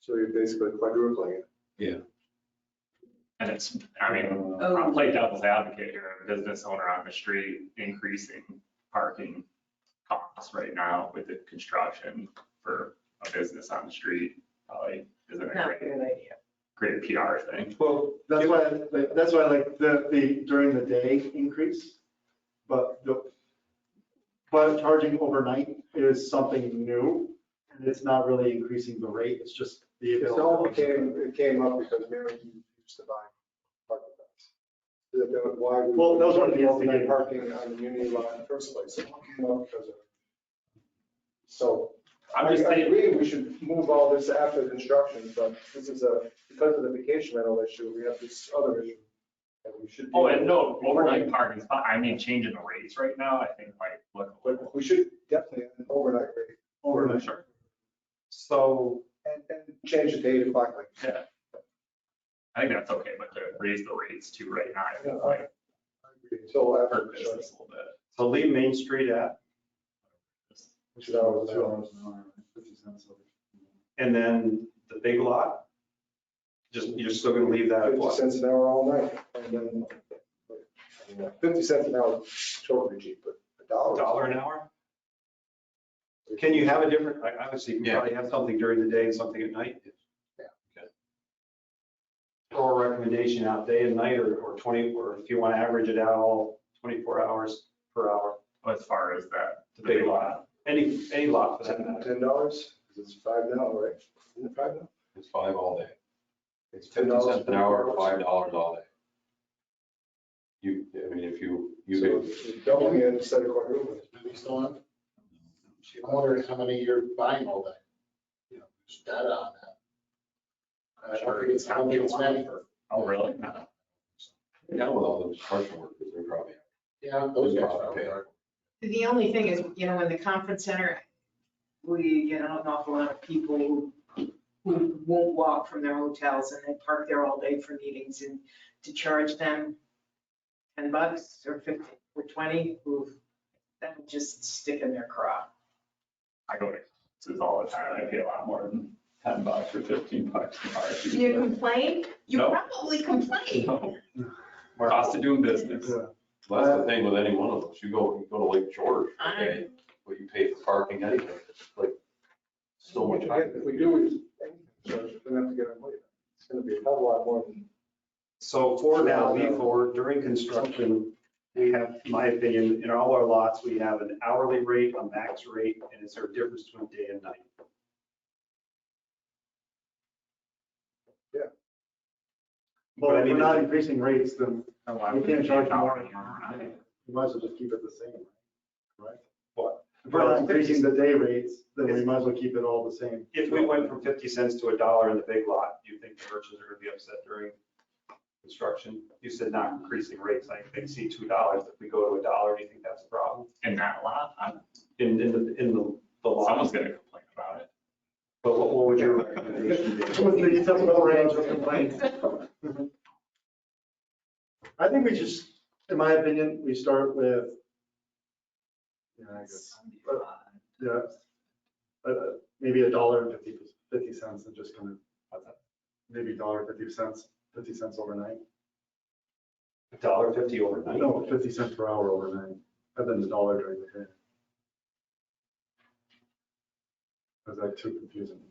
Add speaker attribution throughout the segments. Speaker 1: So you're basically quadrupling it.
Speaker 2: And it's, I mean,
Speaker 3: Oh.
Speaker 2: I'll play devil's advocate here, a business owner on the street increasing parking costs right now with the construction for a business on the street probably isn't a
Speaker 3: Not a
Speaker 2: great,
Speaker 3: good idea.
Speaker 2: great PR thing.
Speaker 1: Well, that's why, like, that's why I like the, the during the day increase, but the, but charging overnight is something new. And it's not really increasing the rate, it's just the.
Speaker 4: It only came, it came up because Mary Hughes used to buy parking lots. That- that- Why we.
Speaker 1: Well, that was one of the
Speaker 4: Overnight
Speaker 1: instigators.
Speaker 4: Parking on the Unity lot in the first place. It came up because of. So I
Speaker 2: I'm just
Speaker 4: I
Speaker 2: saying,
Speaker 4: agree, we should move all this after construction, but this is a, because of the vacation rental issue, we have this other issue. that we should.
Speaker 2: oh, and no, overnight parking spot, I mean, changing the rates right now, I think might look.
Speaker 4: But we should definitely have an overnight rate.
Speaker 1: Overnight.
Speaker 2: Sure.
Speaker 4: So, and, and change the date o'clock like.
Speaker 2: Yeah. I think that's okay, but to raise the rates too right now, I think might
Speaker 4: Until after
Speaker 2: hurt
Speaker 4: construction.
Speaker 2: business a little bit.
Speaker 5: So leave Main Street at,
Speaker 4: Which is always the one.
Speaker 5: and then the big lot? Just, you're still gonna leave that at
Speaker 4: Fifty
Speaker 5: what?
Speaker 4: cents an hour all night, and then, you know, fifty cents an hour, is totally cheap, but a
Speaker 5: A
Speaker 4: dollar.
Speaker 5: dollar an hour? Can you have a different, like, obviously, you can
Speaker 6: Yeah.
Speaker 5: probably have something during the day and something at night.
Speaker 4: Yeah.
Speaker 5: Okay. Throw a recommendation out day and night, or, or twenty, or if you wanna average it out all twenty-four hours per hour,
Speaker 2: As far as that,
Speaker 5: the big lot, any, any lot for that
Speaker 4: Ten
Speaker 5: matter.
Speaker 4: ten dollars, 'Cause it's five now, right? Isn't it five now?
Speaker 6: It's five all day. It's
Speaker 4: Ten
Speaker 6: fifty
Speaker 4: dollars
Speaker 6: cents an
Speaker 4: for
Speaker 6: hour,
Speaker 4: four
Speaker 6: five dollars all day. You, I mean, if you, you
Speaker 4: So
Speaker 6: could,
Speaker 4: it's Doubling it instead of quadrupling.
Speaker 7: Are they still on? I'm wondering how many you're buying all day. You know, There's data on that. I don't think it's, I don't think it's many.
Speaker 2: oh, really?
Speaker 6: now with all those construction workers, they're probably.
Speaker 7: Yeah, those guys. are out
Speaker 6: Okay.
Speaker 7: there.
Speaker 3: The only thing is, you know, in the conference center, we get an awful lot of people who, who won't walk from their hotels and they park there all day for meetings and to charge them ten bucks or fifty or twenty, who, that would just stick in their craw.
Speaker 2: I go to concerts all the time, I pay a lot more than ten bucks or fifteen bucks an hour.
Speaker 3: You complain? You
Speaker 2: No.
Speaker 3: probably complain.
Speaker 2: No. Cost of doing business.
Speaker 6: Well, That's the thing with any one of those, you go, you go to Lake George,
Speaker 3: I-
Speaker 6: okay, but you pay for parking anyway, it's like so much. higher.
Speaker 4: If we do, it, so we're gonna have to get our money. It's gonna be a hell of a lot more than.
Speaker 5: So for now, leave for during construction, we have, in my opinion, in all our lots, we have an hourly rate, a max rate, and is there a difference between day and night?
Speaker 1: Well, if we're not increasing rates, then
Speaker 2: No, I
Speaker 1: You
Speaker 2: wouldn't
Speaker 1: can't charge
Speaker 2: pay a dollar
Speaker 1: more.
Speaker 2: an hour. I-
Speaker 1: we might as well just keep it the same, right?
Speaker 5: What?
Speaker 1: If we're not increasing the day rates, then we might as well keep it all the same.
Speaker 5: If we went from 50 cents to a dollar in the big lot, do you think the merchants are going to be upset during construction? You said not increasing rates, like they see $2, if we go to a dollar, do you think that's a problem?
Speaker 2: In that lot, I'm-
Speaker 5: In, in the, in the the
Speaker 2: someone's
Speaker 5: lot?
Speaker 2: gonna complain about it.
Speaker 5: But what what would your recommendation be?
Speaker 1: What's the acceptable range of complaints? I think we just, in my opinion, we start with. Yeah, I guess, yeah, uh, maybe a dollar and fifty, fifty cents and just kind of, maybe dollar fifty cents, fifty cents overnight.
Speaker 5: A dollar fifty overnight?
Speaker 1: No, fifty cents per hour overnight, and then a dollar during the day. Is that too confusing?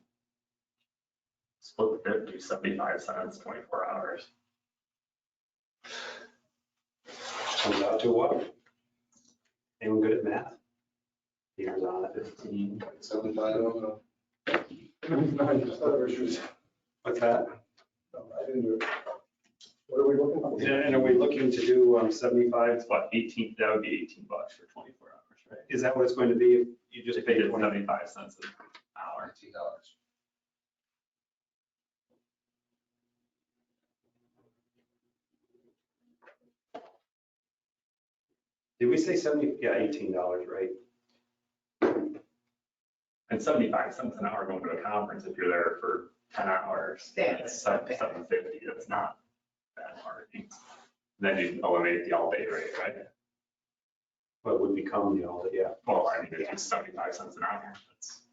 Speaker 2: Split the fifty, seventy-five cents, twenty-four hours.
Speaker 5: Comes out to what? Anyone good at math? Here's on it.
Speaker 2: Fifteen.
Speaker 4: Seven, I don't know. Other issues.
Speaker 5: What's that?
Speaker 4: No, I didn't do it. What are we looking for?
Speaker 5: And and are we looking to do um, 75?
Speaker 2: It's what, eighteen, that would be eighteen bucks for twenty-four hours, right?
Speaker 5: Is that what it's going to be if you just
Speaker 2: Just pay
Speaker 5: pay 20?
Speaker 2: seventy-five cents an hour.
Speaker 5: Did we say 70? Yeah, $18, right?
Speaker 2: And seventy-five cents an hour going to a conference if you're there for ten hours.
Speaker 3: That's not bad.
Speaker 2: Seven fifty, that's not that hard. Then you eliminate the all-day rate, right?
Speaker 5: But would become the all, yeah.
Speaker 2: Well, I mean, it's just seventy-five cents an hour. That's-